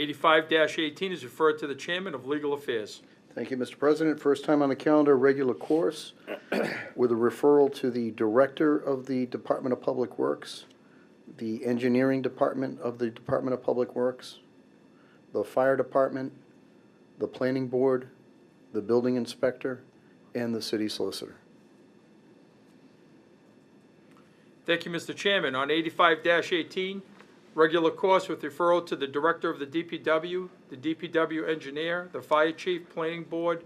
Eighty-five eighteen is referred to the Chairman of Legal Affairs. Thank you, Mr. President. First time on the calendar, regular course, with a referral to the Director of the Department of Public Works, the Engineering Department of the Department of Public Works, the Fire Department, the Planning Board, the Building Inspector, and the City Solicitor. Thank you, Mr. Chairman. On eighty-five eighteen, regular course with referral to the Director of the DPW, the DPW Engineer, the Fire Chief, Planning Board,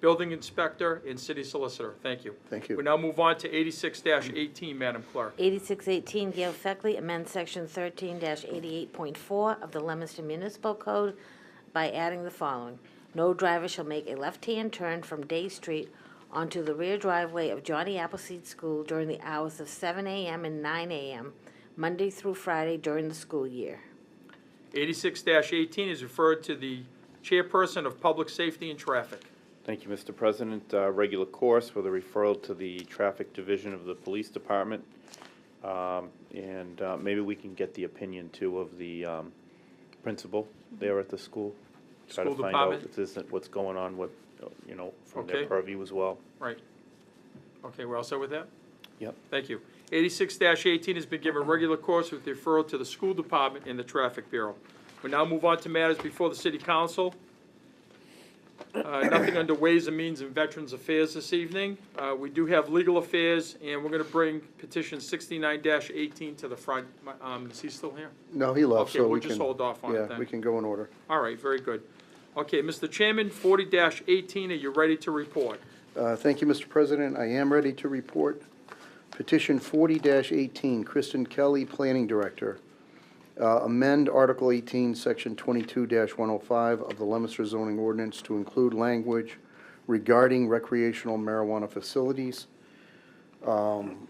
Building Inspector, and City Solicitor. Thank you. Thank you. We now move on to eighty-six eighteen, Madam Clerk. 8618, Gail Feckley, amend Section 13-88.4 of the Leominster Municipal Code by adding the following. No driver shall make a left-hand turn from Day Street onto the rear driveway of Johnny Appleseed School during the hours of 7 a.m. and 9 a.m., Monday through Friday during the school year. Eighty-six eighteen is referred to the Chairperson of Public Safety and Traffic. Thank you, Mr. President. Uh, Regular course with a referral to the Traffic Division of the Police Department. Um, And uh, maybe we can get the opinion, too, of the um, principal there at the school. School Try to find department? out if this is what's going on with, uh, you know, from Okay. their purview as well. Right. Okay, we're all set with that? Yep. Thank you. Eighty-six eighteen has been given regular course with referral to the School Department and the Traffic Bureau. We now move on to matters before the City Council. Uh, Nothing under Ways and Means and Veterans Affairs this evening. Uh, We do have Legal Affairs, and we're gonna bring petition sixty-nine eighteen to the front. My- um, Is he still here? No, he left, Okay, so we can... we'll just hold off on it Yeah, then. we can go in order. All right, very good. Okay, Mr. Chairman, forty eighteen, are you ready to report? Uh, Thank you, Mr. President. I am ready to report. Petition 40-18, Kristen Kelly, Planning Director. Uh, Amend Article 18, Section 22-105 of the Leominster zoning ordinance to include language regarding recreational marijuana facilities. Um,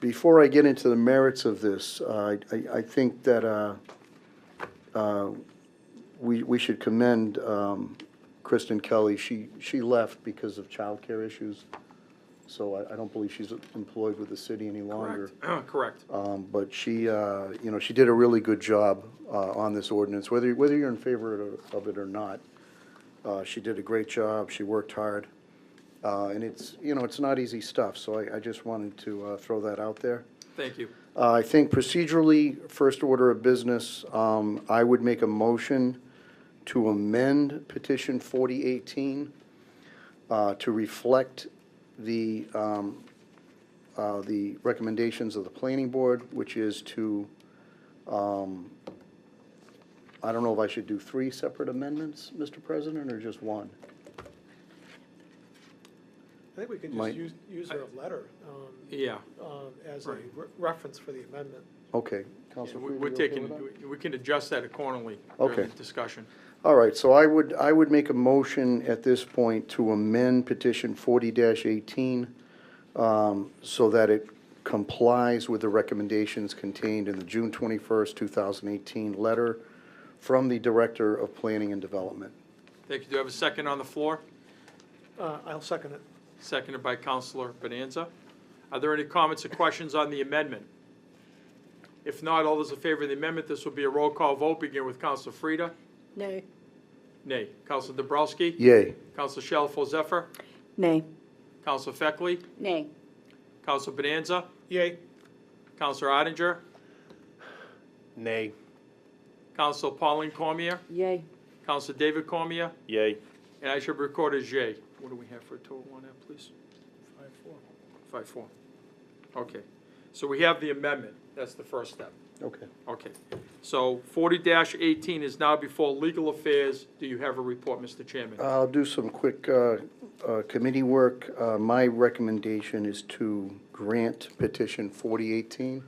Before I get into the merits of this, uh, I I think that uh, uh, we we should commend um, Kristen Kelly, she, she left because of childcare issues, so I, I don't believe she's employed with the city any longer. Correct. Correct. Um, but she, uh, you know, she did a really good job, uh, on this ordinance, whether, whether you're in favor of- of it or not. Uh, she did a great job, she worked hard, uh, and it's, you know, it's not easy stuff, so I, I just wanted to, uh, throw that out there. Thank you. Uh, I think procedurally, first order of business, um, I would make a motion to amend petition 4018 uh, to reflect the, um, uh, the recommendations of the planning board, which is to, um, I don't know if I should do three separate amendments, Mr. President, or just one? I think we can Mike? just use, use her letter um, Yeah. um, as a Right. re- reference for the amendment. Okay. Yeah, Counselor we- Freed, We're you okay taking, with that? we- we can adjust that accordingly during the Okay. discussion. All right, so I would, I would make a motion at this point to amend petition forty eighteen um, so that it complies with the recommendations contained in the June twenty-first, two thousand eighteen letter from the Director of Planning and Development. Thank you. Do you have a second on the floor? Uh, I'll second it. Seconded by Counselor Bonanza. Are there any comments or questions on the amendment? If not, all those in favor of the amendment, this will be a roll call vote, begin with Counselor Frida. Nay. Nay. Counselor Dobrowski? Yay. Counselor Shalfo Zephyr? Nay. Counselor Feckley? Nay. Counselor Bonanza? Yay. Counselor Odenger? Nay. Counselor Pauline Cormier? Yay. Counselor David Cormier? Yay. And I should record as yea. What do we have for a total on that, please? Five, four. Five, four. Okay, so we have the amendment, that's the first step, Okay. okay. So forty eighteen is now before legal affairs, do you have a report, Mr. Chairman? I'll do some quick uh, uh, committee work. Uh, My recommendation is to grant petition forty eighteen.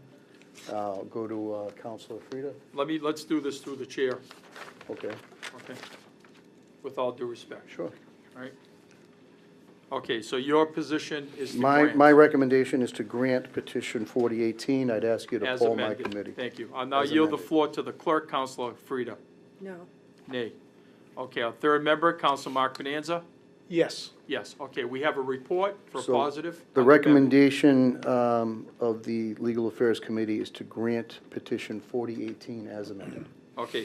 I'll go to uh, Counselor Frida. Let me, let's do this through the chair, Okay, okay? With all due respect, sure. all right? Okay, so your position is to My, grant. my recommendation is to grant petition 4018. I'd ask you to as poll my amended. committee. Thank you. I'll now As yield the amended. floor to the clerk, Counselor Frida. No. Nay. Okay, our third member, Counselor Mark Bonanza? Yes. Yes, okay, we have a report for So, positive. The on amendment. recommendation um, of the Legal Affairs Committee is to grant petition 4018 as amended. Okay,